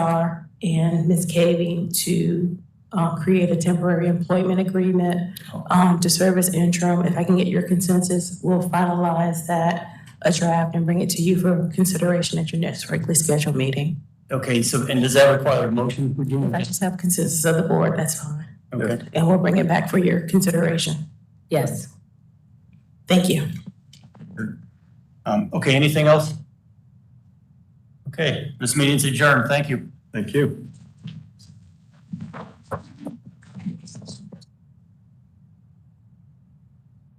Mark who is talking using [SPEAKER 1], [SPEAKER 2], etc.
[SPEAKER 1] HR and Ms. Caving to uh, create a temporary employment agreement um, to serve as interim. If I can get your consensus, we'll finalize that, a draft, and bring it to you for consideration at your next regularly scheduled meeting.
[SPEAKER 2] Okay, so, and does that require a motion?
[SPEAKER 1] If I just have consensus of the board, that's fine.
[SPEAKER 2] Okay,
[SPEAKER 1] And we'll bring it back for your consideration.
[SPEAKER 3] Yes.
[SPEAKER 1] Thank you.
[SPEAKER 2] um, okay, anything else? Okay, this meeting's adjourned, thank you. Thank you.